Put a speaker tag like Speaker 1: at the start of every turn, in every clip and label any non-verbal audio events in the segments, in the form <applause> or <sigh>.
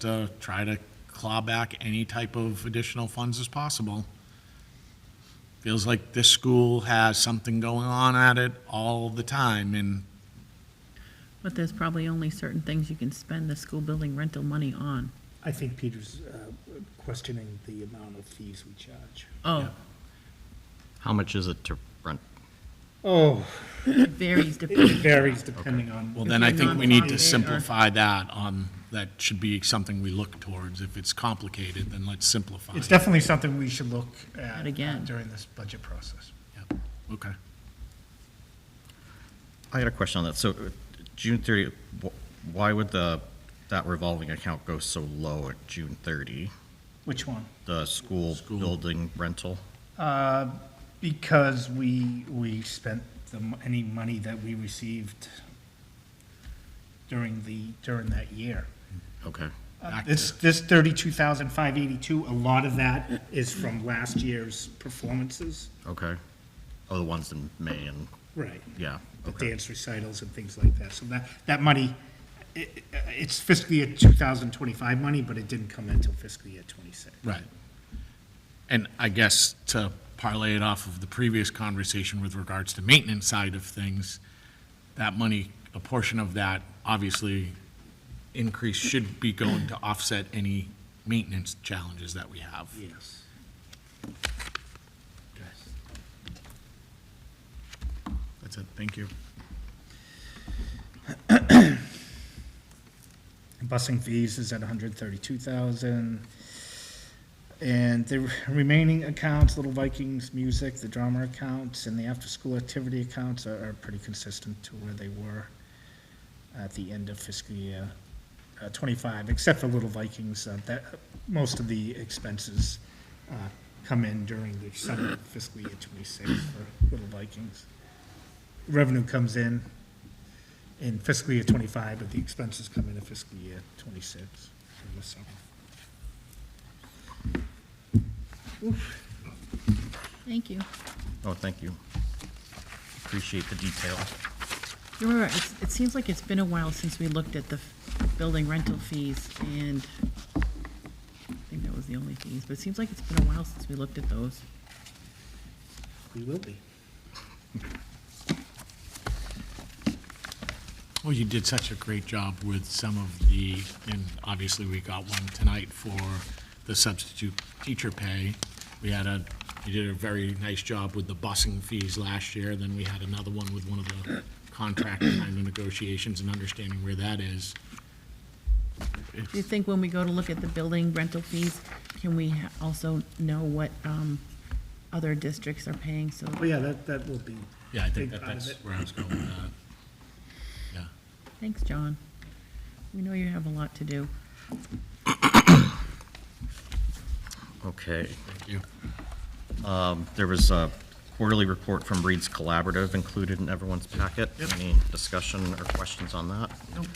Speaker 1: to try to claw back any type of additional funds as possible. Feels like this school has something going on at it all the time, and
Speaker 2: But there's probably only certain things you can spend the school building rental money on.
Speaker 3: I think Peter's uh, questioning the amount of fees we charge.
Speaker 2: Oh,
Speaker 4: How much is it to rent?
Speaker 3: Oh,
Speaker 2: <coughs> it varies
Speaker 3: it
Speaker 2: depending.
Speaker 3: varies depending on.
Speaker 1: well, then I
Speaker 2: If you're
Speaker 1: think we need to
Speaker 2: non-profit or-
Speaker 1: simplify that on, that should be something we look towards. If it's complicated, then let's simplify
Speaker 3: It's
Speaker 1: it.
Speaker 3: definitely something we should look at
Speaker 2: At again.
Speaker 3: uh, during this budget process.
Speaker 1: Yep. Okay.
Speaker 4: I had a question on that. So uh, June 30, wh- why would the, that revolving account go so low at June 30?
Speaker 3: Which one?
Speaker 4: The school
Speaker 1: School.
Speaker 4: building rental?
Speaker 3: Uh, Because we, we spent the, m- any money that we received during the, during that year. Uh,
Speaker 4: Okay.
Speaker 1: Back to-
Speaker 3: This, this thirty-two thousand five eighty-two, a lot of that is from last year's performances.
Speaker 4: Okay. Oh, the ones in May and,
Speaker 3: Right.
Speaker 4: yeah,
Speaker 3: the
Speaker 4: okay.
Speaker 3: dance recitals and things like that. So that, that money, i- i- it's fiscal year 2025 money, but it didn't come in until fiscal year '26.
Speaker 1: Right. And I guess to parlay it off of the previous conversation with regards to maintenance side of things, that money, a portion of that, obviously, increase should be going to offset any maintenance challenges that we have.
Speaker 3: Yes.
Speaker 1: That's it, thank you.
Speaker 3: <coughs> Busing fees is at 132,000. And the remaining accounts, Little Vikings Music, the drama accounts, and the after-school activity accounts are, are pretty consistent to where they were at the end of fiscal year uh, '25, except for Little Vikings, uh, that, most of the expenses uh, come in during the summer of fiscal year '26 for Little Vikings. Revenue comes in in fiscal year '25, but the expenses come in in fiscal year '26 in the summer.
Speaker 2: Thank you.
Speaker 4: Oh, thank you. Appreciate the detail.
Speaker 2: You're right. It's- It seems like it's been a while since we looked at the f- building rental fees and I think that was the only fees, but it seems like it's been a while since we looked at those.
Speaker 3: We will be.
Speaker 1: Well, you did such a great job with some of the, and obviously, we got one tonight for the substitute teacher pay. We had a, you did a very nice job with the busing fees last year, then we had another one with one of the contract kind of negotiations and understanding where that is.
Speaker 2: Do you think when we go to look at the building rental fees, can we ha- also know what um, other districts are paying? So
Speaker 3: But Oh, yeah, that, that will be.
Speaker 1: Yeah, I think
Speaker 3: Big
Speaker 1: that
Speaker 3: part of
Speaker 1: that's
Speaker 3: it.
Speaker 1: where I was going with that. Yeah.
Speaker 2: thanks, John. We know you have a lot to do.
Speaker 4: Okay.
Speaker 1: Thank you.
Speaker 4: Um, There was a quarterly report from Reed's Collaborative included in everyone's packet. Any discussion or questions on that? Nope.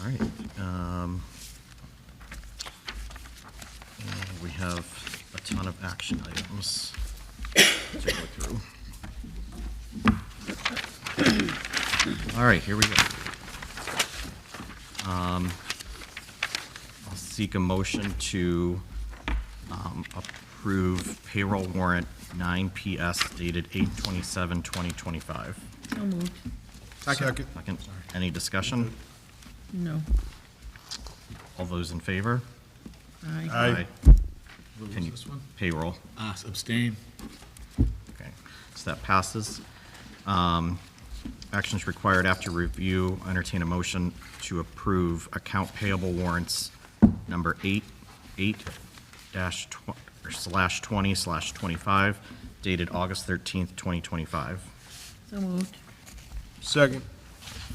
Speaker 4: All right. um, and We have a ton of action items to go through. All right, here we go. Um, I'll seek a motion to um, approve payroll warrant 9PS dated 8/27/2025.
Speaker 2: So moved.
Speaker 5: Second.
Speaker 4: Second, any discussion?
Speaker 2: No.
Speaker 4: All those in favor?
Speaker 2: Aye.
Speaker 5: Aye.
Speaker 1: What
Speaker 4: Can
Speaker 1: was
Speaker 4: you-
Speaker 1: this one?
Speaker 4: Payroll,
Speaker 1: Uh, abstain.
Speaker 4: okay, so that passes. Um, Actions required after review, entertain a motion to approve account payable warrants number 8, 8 dash, tw- or slash 20 slash 25 dated August 13th, 2025.
Speaker 2: So moved.
Speaker 5: Second.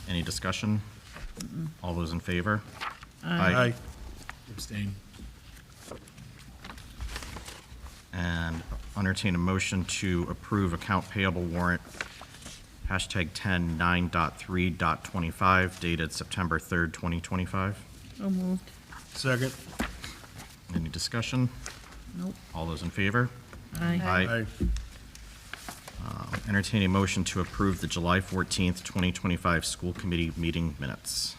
Speaker 4: Any discussion? All those in favor?
Speaker 5: Aye.
Speaker 1: Abstain.
Speaker 4: And entertain a motion to approve account payable warrant, hashtag 10 9.3.25 dated September 3rd, 2025.
Speaker 2: So moved.
Speaker 5: Second.
Speaker 4: Any discussion?
Speaker 2: Nope.
Speaker 4: All those in favor?
Speaker 2: Aye.
Speaker 5: Aye.
Speaker 4: Entertain a motion to approve the July 14th, 2025 school committee meeting minutes.